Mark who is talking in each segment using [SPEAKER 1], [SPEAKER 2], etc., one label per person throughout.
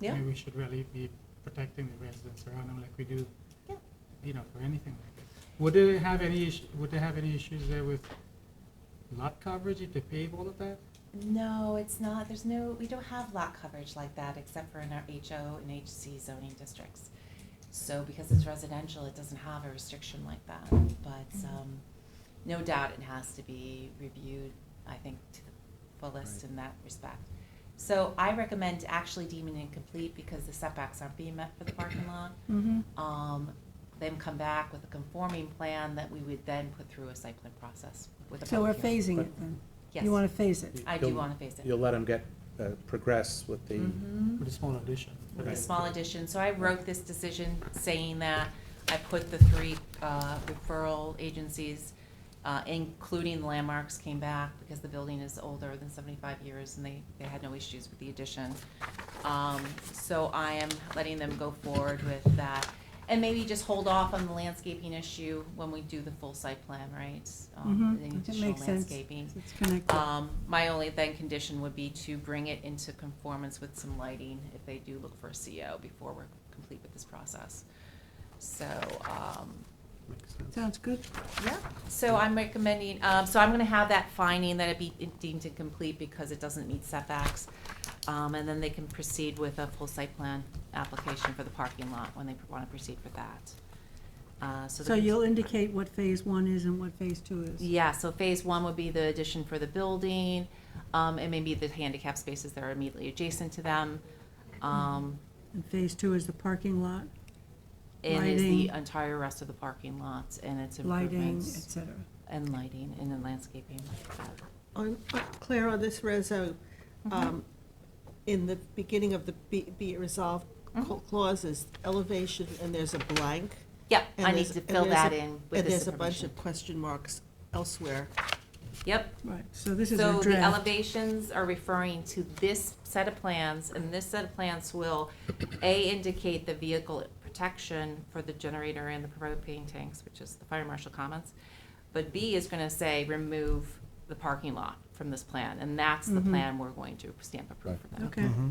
[SPEAKER 1] Yeah.
[SPEAKER 2] Maybe we should really be protecting the residents around them like we do,
[SPEAKER 1] Yeah.
[SPEAKER 2] you know, for anything like that. Would they have any, issue- would they have any issues there with lot coverage if they pave all of that?
[SPEAKER 1] Mm-hmm. No, it's not, there's no, we don't have lot coverage like that except for in our HO and HC zoning districts. So because it's residential, it doesn't have a restriction like that, but, um, no doubt it has to be reviewed, I think, to the fullest in that respect. So I recommend actually deeming it incomplete because the setbacks aren't being met for the parking lot.
[SPEAKER 3] Mm-hmm.
[SPEAKER 1] Um, then come back with a conforming plan that we would then put through a site plan process with a
[SPEAKER 3] So we're
[SPEAKER 1] public hearing.
[SPEAKER 3] phasing
[SPEAKER 4] But-
[SPEAKER 3] it then?
[SPEAKER 1] Yes,
[SPEAKER 3] You want to phase it?
[SPEAKER 1] I do
[SPEAKER 4] You'll-
[SPEAKER 1] wanna phase it.
[SPEAKER 4] You'll let them get, uh, progress with the,
[SPEAKER 1] Mhm.
[SPEAKER 2] With a small addition?
[SPEAKER 1] With a
[SPEAKER 4] Right.
[SPEAKER 1] small addition, so I wrote this decision saying that I put the three uh, referral agencies, uh, including landmarks, came back because the building is older than seventy-five years and they, they had no issues with the addition. Um, So I am letting them go forward with that. And maybe just hold off on the landscaping issue when we do the full site plan, right? Um,
[SPEAKER 3] Mhm.
[SPEAKER 1] The
[SPEAKER 3] That
[SPEAKER 1] additional
[SPEAKER 3] makes sense.
[SPEAKER 1] landscaping.
[SPEAKER 3] It's connected.
[SPEAKER 1] Um, my only then condition would be to bring it into conformance with some lighting if they do look for a CO before we're complete with this process. So, um,
[SPEAKER 4] makes sense.
[SPEAKER 3] Sounds good.
[SPEAKER 1] yeah, so I'm recommending, um, so I'm gonna have that finding that it be deemed incomplete because it doesn't meet setbacks. Um, and then they can proceed with a full site plan application for the parking lot when they wanna proceed with that. Uh, so.
[SPEAKER 3] So
[SPEAKER 1] the-
[SPEAKER 3] you'll indicate what phase one is and what phase two is?
[SPEAKER 1] Yeah, so phase one would be the addition for the building, um, and maybe the handicap spaces that are immediately adjacent to them. Um,
[SPEAKER 3] And phase two is the parking lot,
[SPEAKER 1] and is the
[SPEAKER 3] Lighting.
[SPEAKER 1] entire rest of the parking lots and its
[SPEAKER 3] lighting, et
[SPEAKER 1] improvements
[SPEAKER 3] cetera.
[SPEAKER 1] and lighting and then landscaping.
[SPEAKER 5] On, uh, Claire, on this reso,
[SPEAKER 1] Mm-hmm.
[SPEAKER 5] um, in the beginning of the be be it resolved
[SPEAKER 1] Mm-hmm.
[SPEAKER 5] cla- clauses, elevation, and there's a blank.
[SPEAKER 1] Yep,
[SPEAKER 5] and
[SPEAKER 1] I need
[SPEAKER 5] there's-
[SPEAKER 1] to
[SPEAKER 5] and
[SPEAKER 1] fill
[SPEAKER 5] there's a-
[SPEAKER 1] that in with
[SPEAKER 5] And
[SPEAKER 1] this
[SPEAKER 5] there's a bunch
[SPEAKER 1] information.
[SPEAKER 5] of question marks elsewhere.
[SPEAKER 1] Yep,
[SPEAKER 3] Right, so this is
[SPEAKER 1] So
[SPEAKER 3] a
[SPEAKER 1] the
[SPEAKER 3] draft.
[SPEAKER 1] elevations are referring to this set of plans, and this set of plans will, A, indicate the vehicle protection for the generator and the propane tanks, which is the fire marshal comments. But B is gonna say, remove the parking lot from this plan, and that's the
[SPEAKER 3] Mhm.
[SPEAKER 1] plan we're going to stamp approve for them.
[SPEAKER 3] Okay,
[SPEAKER 2] Mm-hmm.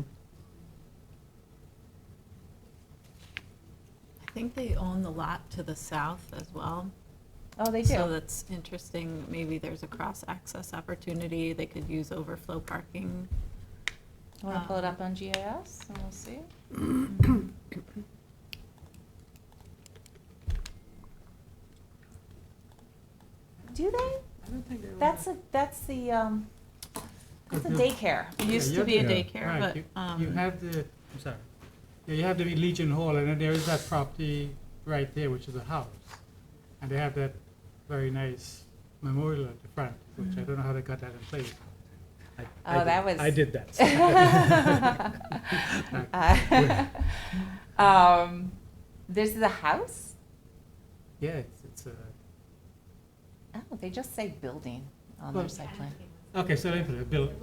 [SPEAKER 6] I think they own the lot to the south as well.
[SPEAKER 1] Oh, they
[SPEAKER 6] So that's interesting. Maybe there's a cross-access opportunity. They could use overflow parking.
[SPEAKER 1] Wanna pull it up on GIS, and we'll see? Do they?
[SPEAKER 2] I don't think they would.
[SPEAKER 1] That's a, that's the, um, that's a daycare.
[SPEAKER 6] It used to be a daycare,
[SPEAKER 2] Right,
[SPEAKER 6] but,
[SPEAKER 2] you, you
[SPEAKER 6] um,
[SPEAKER 2] have the, I'm sorry, yeah, you have the Legion Hall, and then there is that property right there, which is a house. And they have that very nice memorial at the front,
[SPEAKER 6] Mm-hmm.
[SPEAKER 2] which I don't know how they got that in place. I- I
[SPEAKER 1] Oh,
[SPEAKER 2] did-
[SPEAKER 1] that was-
[SPEAKER 2] I did that. so.
[SPEAKER 1] Uh, Um, this is a house?
[SPEAKER 2] Yeah, it's, it's a,
[SPEAKER 1] Oh, they just say building on their
[SPEAKER 2] Well-
[SPEAKER 1] site plan.
[SPEAKER 2] okay, so it's a building,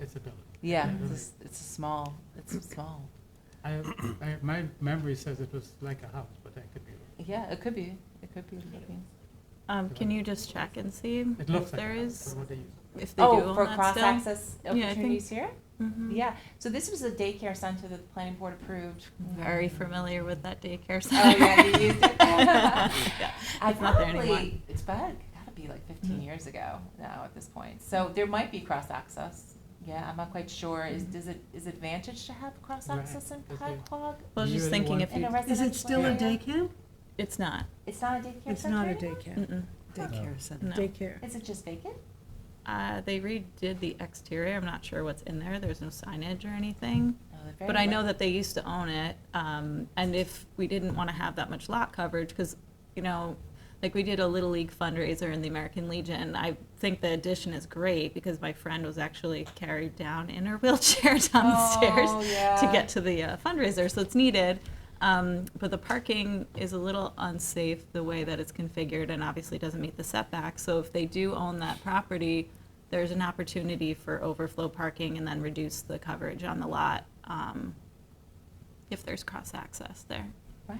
[SPEAKER 2] it's a building. Yeah,
[SPEAKER 1] Yeah, it's, a
[SPEAKER 2] really.
[SPEAKER 1] s- it's a small, it's a small.
[SPEAKER 2] I, I, my memory says it was like a house, but that could be, wrong.
[SPEAKER 1] Yeah, it could be, it could be living.
[SPEAKER 6] um, can you just check and see
[SPEAKER 2] it
[SPEAKER 6] if
[SPEAKER 2] looks like a
[SPEAKER 6] there
[SPEAKER 2] house,
[SPEAKER 6] is,
[SPEAKER 2] but what they use.
[SPEAKER 6] if they do
[SPEAKER 1] Oh,
[SPEAKER 6] own
[SPEAKER 1] for
[SPEAKER 6] that still?
[SPEAKER 1] cross-access
[SPEAKER 6] I think-
[SPEAKER 1] opportunities here?
[SPEAKER 6] Mhm.
[SPEAKER 1] Yeah, so this was a daycare center that the planning board approved.
[SPEAKER 6] Very familiar with that daycare
[SPEAKER 1] Oh,
[SPEAKER 6] center.
[SPEAKER 1] yeah, you used it.
[SPEAKER 6] Yeah,
[SPEAKER 1] I
[SPEAKER 6] It's not there anymore. Mm-hmm.
[SPEAKER 1] probably, it's bad, gotta be like fifteen years ago now at this point, so there might be cross-access. Yeah, I'm not quite sure, is,
[SPEAKER 6] Mm-hmm.
[SPEAKER 1] does it, is it advantage to have cross-access in
[SPEAKER 2] Right, okay.
[SPEAKER 1] Pecog
[SPEAKER 6] I was
[SPEAKER 2] You're
[SPEAKER 6] just
[SPEAKER 2] the
[SPEAKER 6] thinking
[SPEAKER 2] one-
[SPEAKER 6] if
[SPEAKER 1] in a
[SPEAKER 6] you,
[SPEAKER 3] is
[SPEAKER 1] residential
[SPEAKER 3] it still a
[SPEAKER 1] area?
[SPEAKER 3] day camp?
[SPEAKER 6] it's not.
[SPEAKER 1] It's not a daycare center?
[SPEAKER 3] It's not a day
[SPEAKER 1] anymore?
[SPEAKER 3] camp,
[SPEAKER 6] Mm-mm.
[SPEAKER 4] Daycare
[SPEAKER 3] center.
[SPEAKER 6] No.
[SPEAKER 3] Daycare.
[SPEAKER 1] Is it just vacant?
[SPEAKER 6] Uh, they redid the exterior. I'm not sure what's in there. There's no signage or anything.
[SPEAKER 1] No, they're very
[SPEAKER 6] But I know
[SPEAKER 1] li-
[SPEAKER 6] that they used to own it, um, and if we didn't want to have that much lot coverage, because, you know, like we did a Little League fundraiser in the American Legion, I think the addition is great, because my friend was actually carried down in her wheelchair down the stairs
[SPEAKER 1] Oh, yeah.
[SPEAKER 6] to get to the uh, fundraiser, so it's needed. Um, but the parking is a little unsafe the way that it's configured and obviously doesn't meet the setback. So if they do own that property, there's an opportunity for overflow parking and then reduce the coverage on the lot um, if there's cross access there.
[SPEAKER 1] Right,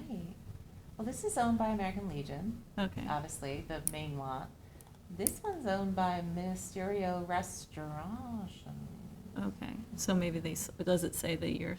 [SPEAKER 1] well, this is owned by American Legion,
[SPEAKER 6] Okay.
[SPEAKER 1] obviously, the main lot. This one's owned by Ministerio Restaurant.
[SPEAKER 6] Oh, Okay. So maybe they s- does it say the year